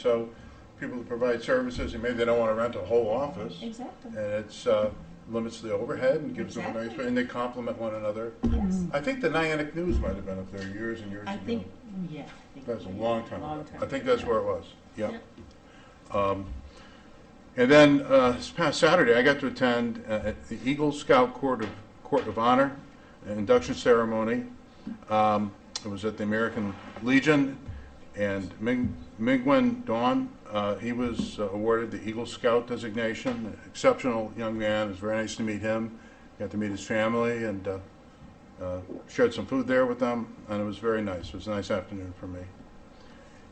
So people that provide services, and maybe they don't want to rent a whole office, and Exactly. it's, uh, limits the overhead and gives them a nice, Exactly. and they complement one another. Yes. I think the Nyannick News might have been up there years and years I ago. think, yeah. I think That's a we- long time ago. long time I think that's ago. where it was, yeah. Um, And then, uh, this past Saturday, I got to attend uh, the Eagle Scout Court of, Court of Honor induction ceremony. Um, It was at the American Legion, and Ming- Mingwen Dawn, uh, he was uh, awarded the Eagle Scout designation, exceptional young man, it was very nice to meet him, got to meet his family, and uh, uh, shared some food there with them, and it was very nice, it was a nice afternoon for me.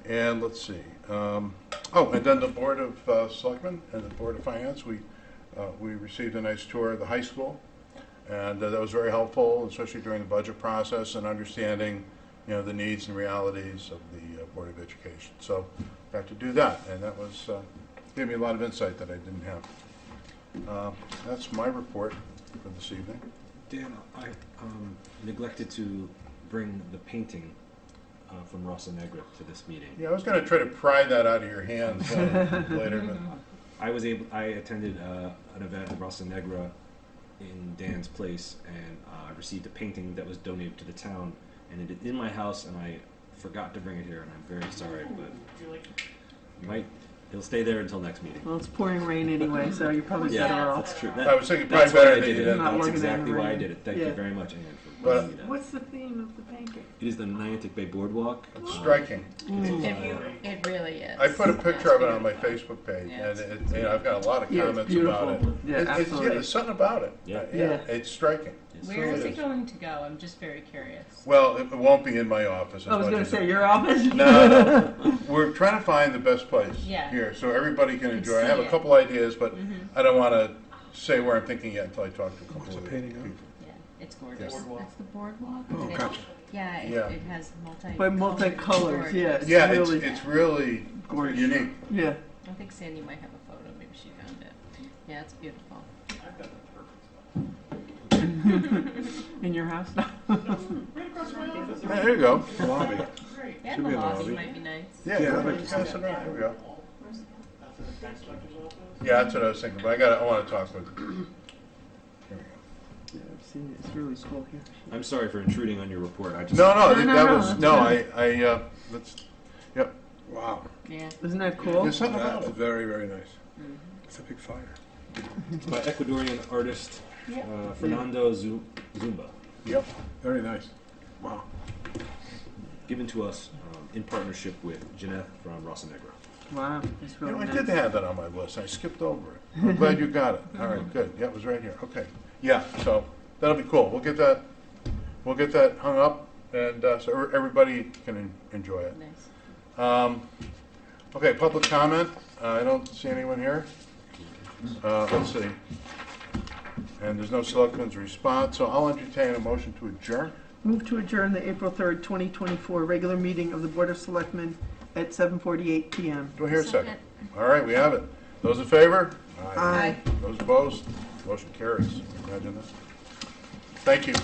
And let's see, um, oh, and then the Board of uh, Selectmen and the Board of Finance, we, uh, we received a nice tour of the high school. And uh, that was very helpful, especially during the budget process and understanding, you know, the needs and realities of the uh, Board of Education. So got to do that, and that was, uh, gave me a lot of insight that I didn't have. Uh, That's my report for this evening. Dan, I um, neglected to bring the painting uh, from Rosa Negra to this meeting. Yeah, I was gonna try to pry that out of your hands uh, later, but I was able. I attended uh, an event at Rosa Negra in Dan's place, and uh, I received a painting that was donated to the town, and it is in my house, and I forgot to bring it here, and I'm very sorry, but might it'll stay there until next meeting. Well, it's pouring rain anyway, so you're probably Yeah. better off. That's true. I That, was thinking probably that's why better I than did you it. did. Not That's working exactly on it, why I right? did it. Thank you Yeah. very much, Anne, for But- bringing me that. What's the theme of the painting? It is the Niantic Bay Boardwalk. It's Um, striking. it's, If you, uh, it really is. I put a picture of it on my That's beautiful. Facebook page, Yeah, and it, you know, I've got a lot of Yeah, it's comments about it. beautiful. Yeah, It- it's- absolutely. Yeah, there's something about it. Uh, Yeah. Yeah. It's striking. it's- Where is It it is. going to go? I'm just very curious. Well, it won't be in my office. as I was much going as to say it- your office. No, no. we're trying to find the best place Yeah. here, so everybody can Can enjoy. I have see a it. Mm-hmm. couple ideas, but I don't want to say where I'm thinking yet until I talk to a couple of people. Yeah, it's gorgeous. Boardwalk. It's the boardwalk. Oh, It- gotcha. Yeah, it, Yeah. it has multi. But multicolors, yeah. It's Yeah, it's, really it's really gorgeous. unique. Yeah. I think Sandy might have a photo. Maybe she found it. Yeah, it's beautiful. In your house? There you go. lobby. Yeah, Should the be in the lobby lobby. might be nice. Yeah, Yeah, I'd yeah, like to see pass it around. Here we go. Yeah, that's what I was thinking, but I got, I want to talk with. Here we go. yeah, I've seen it. It's really cool here. I'm sorry for intruding on your report. I just No, no, No, that- no, that no, was, that's no, I, good. I, uh, that's, yep. Wow. Yeah. Isn't that cool? There's something about That's it. very, very nice. Mm-hmm. It's a big fire. by Ecuadorian artist uh, Fernando Zu- Zumba, Yep. Very nice. Wow. given to us um, in partnership with Jeanette from Rosa Negra. Wow. It's You really know, I nice. did have that on my list. I skipped over it. I'm glad you got it. All right, good. Yeah, it was right here. Okay. Yeah, so that'll be cool. We'll get that, we'll get that hung up and, uh, so every- everybody can en- enjoy it. Nice. Um, okay, public comment. Uh, I don't see anyone here. Uh, let's see. And there's no selectmen's response, so I'll entertain a motion to adjourn. Move to adjourn the April 3rd, 2024 regular meeting of the Board of Selectmen at 7:48 p.m. Do I hear a second? Second. All right, we have it. Those in favor? Aye. Those opposed? Motion carries. Imagine that. Thank you.